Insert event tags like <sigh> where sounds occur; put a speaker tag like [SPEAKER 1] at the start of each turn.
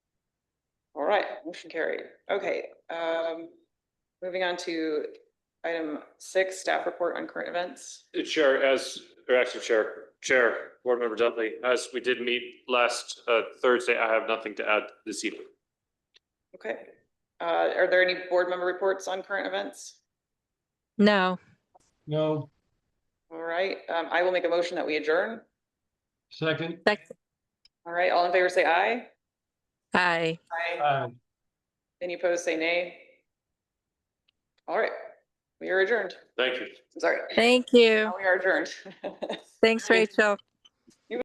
[SPEAKER 1] right, motion carried. Okay, um, moving on to item six, staff report on current events.
[SPEAKER 2] Chair, as, or actually Chair, Chair, Board Member Dudley, as we did meet last uh, Thursday, I have nothing to add this evening.
[SPEAKER 1] Okay, uh, are there any board member reports on current events?
[SPEAKER 3] No,
[SPEAKER 4] No,
[SPEAKER 1] All right, um, I will make a motion that we adjourn.
[SPEAKER 4] second,
[SPEAKER 3] that's,
[SPEAKER 1] All right, all in favor, say aye.
[SPEAKER 3] aye.
[SPEAKER 4] aye.
[SPEAKER 1] Any opposed, say nay. All right, we are adjourned.
[SPEAKER 2] Thank you.
[SPEAKER 1] Sorry,
[SPEAKER 3] Thank you.
[SPEAKER 1] we are adjourned. <laughs>
[SPEAKER 3] Thanks,
[SPEAKER 1] Thank-
[SPEAKER 3] Rachel.